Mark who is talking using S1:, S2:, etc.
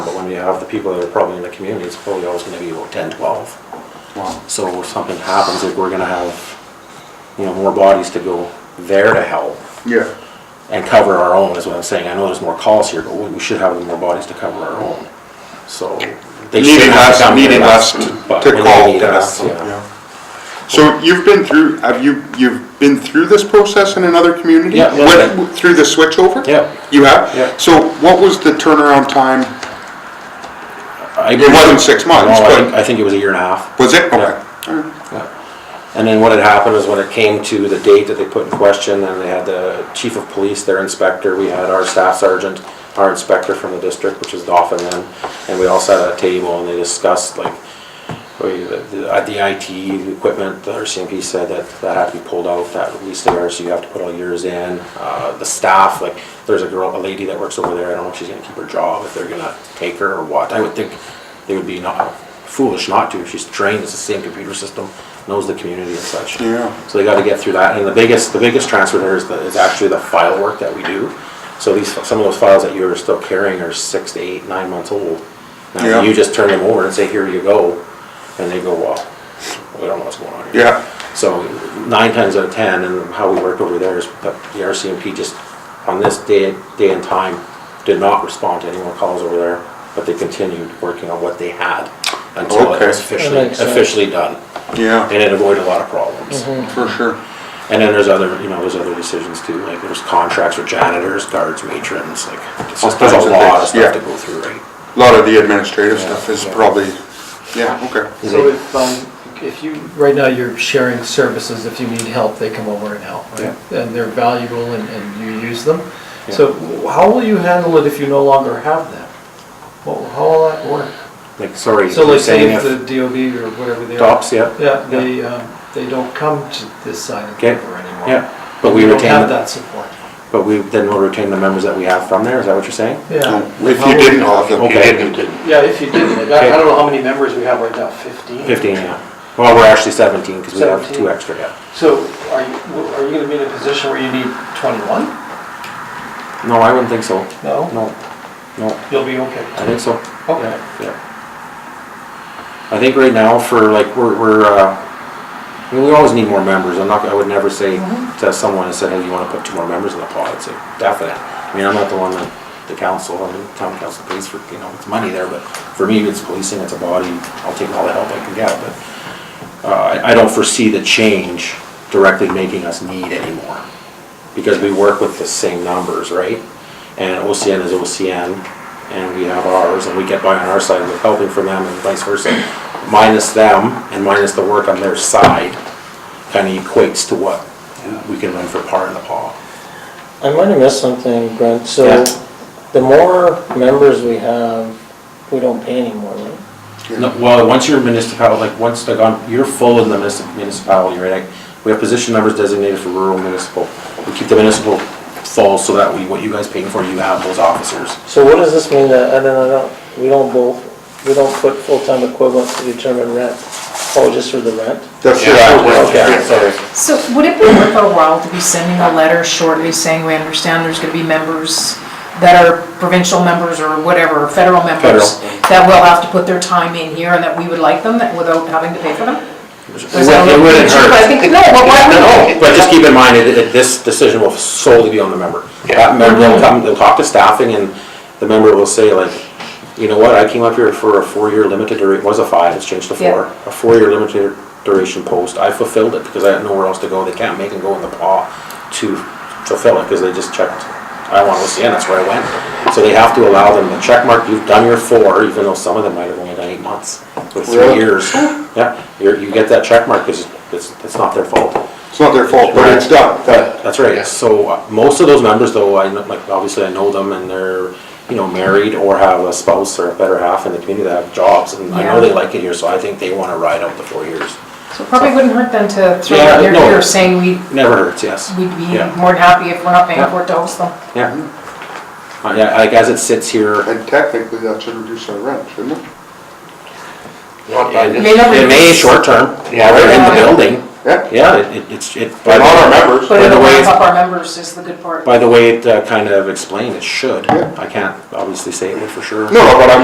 S1: you have the people that are probably in the community, it's probably always gonna be about 10, 12. So if something happens, like we're gonna have, you know, more bodies to go there to help
S2: Yeah.
S1: and cover our own, is what I'm saying. I know there's more calls here, but we we should have more bodies to cover our own, so. they
S2: Needing
S1: should have
S2: us-
S1: come here
S2: needing us
S1: but
S2: to
S1: when they
S2: call
S1: need
S2: to
S1: us,
S2: us,
S1: yeah.
S2: So you've been through, have you, you've been through this process in another community?
S1: Yeah, yeah.
S2: Went Through the switchover?
S1: Yeah.
S2: You have?
S1: Yeah.
S2: So what was the turnaround time?
S1: I-
S2: It wasn't six months,
S1: No, I
S2: but-
S1: think- I think it was a year and a half.
S2: Was it?
S1: Yeah.
S2: Okay.
S1: And then what had happened is when it came to the date that they put in question, then they had the chief of police, their inspector, we had our staff sergeant, our inspector from the district, which is Dauphin then, and we all sat at a table and they discussed like, we- the, the at the IT equipment, the RCMP said that that had to be pulled out, that release there, so you have to put all yours in. Uh, the staff, like, there's a girl, a lady that works over there, I don't know if she's gonna keep her job, if they're gonna take her or what. I would think they would be not foolish not to, if she's trained, it's the same computer system, knows the community and such.
S2: Yeah.
S1: So they gotta get through that, and the biggest, the biggest transfer there is, the- is actually the file work that we do. So these, some of those files that you're still carrying are six to eight, nine months old.
S2: Yeah.
S1: Now, you just turn them over and say, here you go, and they go, well, we don't know what's going on here.
S2: Yeah.
S1: So nine times out of ten, and how we worked over there is that the RCMP just, on this day, day and time, did not respond to any more calls over there, but they continued working on what they had until it
S2: Okay.
S1: was officially,
S3: That makes sense. Mm-hmm.
S1: officially done.
S2: Yeah,
S1: And it avoided a lot of problems.
S2: for sure.
S1: And then there's other, you know, there's other decisions too, like there's contracts with janitors, guards, matrons, like, it's just- there's
S2: All kinds
S1: a
S2: of
S1: lot of
S2: things, yeah.
S1: stuff to go through, right?
S2: A lot of the administrative stuff is probably, yeah, okay.
S3: So if, um, if you, right now you're sharing services, if you need help, they come over and help, right? And they're valuable and, and you use them. So w- how will you handle it if you no longer have them? Well, how will that work?
S1: Like, sorry,
S3: So
S1: you're
S3: like say
S1: saying
S3: if the
S1: if
S3: DOB or whatever they are.
S1: DOPS, yeah?
S3: Yeah, they, um, they don't come to this side of the
S1: Okay.
S3: river anymore.
S1: Yeah, but we
S3: You don't
S1: retain,
S3: have
S1: the-
S3: that support.
S1: but we, then we'll retain the members that we have from there, is that what you're saying?
S3: Yeah.
S2: If
S3: How
S2: you
S3: will-
S2: didn't have them.
S1: Okay,
S3: Yeah, if you didn't, like, I I don't know how many members we have right now, fifteen?
S1: fifteen, yeah. Well, we're actually seventeen, because we have two
S3: 17.
S1: extra, yeah.
S3: So are you, are you gonna be in a position where you need twenty-one?
S1: No, I wouldn't think so.
S3: No?
S1: No, no,
S3: You'll be okay.
S1: I think so.
S3: Okay.
S1: Yeah, Yeah. I think right now for like, we're, we're, uh, I mean, we always need more members. I'm not, I would never say to someone and say, hey, you wanna put two more members in the pot? It's like, definite. I mean, I'm not the one that, the council, I mean, town council pays for, you know, it's money there, but for me, it's policing, it's a body. I'll take all the help I can get, but, uh, I, I don't foresee the change directly making us need anymore. Because we work with the same numbers, right? And OCN is OCN, and we have ours, and we get by on our side with helping from them and vice versa. Minus them and minus the work on their side, kind of equates to what we can run for par in the paw.
S4: I might have missed something, Brent, so
S1: Yeah.
S4: the more members we have, we don't pay anymore, right?
S1: No, Well, once you're municipal, like, once, like, on- you're full in the munis- municipality, right? Like, We have position numbers designated for rural municipal. We keep the municipal full so that we, what you guys paying for, you have those officers.
S4: So what does this mean that, I don't know, we don't both, we don't put full-time equivalents to determine rent? Oh, just for the rent?
S2: That's
S4: okay.
S2: it.
S1: sorry.
S5: So would it be worth our while to be sending a letter shortly saying we understand there's gonna be members that are provincial members or whatever, federal members,
S1: Federal.
S5: that will have to put their time in here and that we would like them that- without having to pay for them? Or is that a
S1: It
S5: little
S1: wouldn't
S5: premature?
S1: hurt.
S5: But I think, no, but why would
S1: No, but just keep in mind, it- it- this decision will solely be on the member. That member will come, they'll talk to staffing, and the member will say like, you know what, I came up here for a four-year limited duration, it was a five, it's changed to four.
S5: Yeah.
S1: A four-year limited duration post, I fulfilled it because I had nowhere else to go, they can't make and go in the paw to fulfill it, because they just checked, I want OCN, that's where I went. So they have to allow them the check mark, you've done your four, even though some of them might have only done eight months, or three
S2: Really?
S1: years. Yeah, you're, you get that check mark, because it's, it's not their fault.
S2: It's not their fault, but it's done. That-
S1: That's right, so uh, most of those members though, I know, like, obviously I know them and they're, you know, married or have a spouse or a better half in the community that have jobs, and I know
S5: Yeah.
S1: they like it here, so I think they wanna ride out the four years.
S5: we- So it probably wouldn't hurt then to throw
S1: Yeah,
S5: it in
S1: no.
S5: here saying we,
S1: Never hurts, yes.
S5: we'd be
S1: Yeah.
S5: more than happy if we're not paying for it to host them.
S1: Yeah. Uh, Yeah, like as it sits here,
S2: And technically, that should reduce our rent, shouldn't it?
S6: Not by
S5: May
S6: this,
S5: not
S1: it may
S5: reduce-
S1: short term,
S6: Yeah.
S1: while they're in the building,
S2: Yeah.
S1: yeah, it- it, it's, it.
S2: But not our members.
S5: But
S1: By the
S5: it'll
S1: way-
S5: ramp up our members is the good part.
S1: By the way, it uh, kind of explained, it should,
S2: Yeah.
S1: I can't obviously say it would for sure.
S2: No, no, but I'm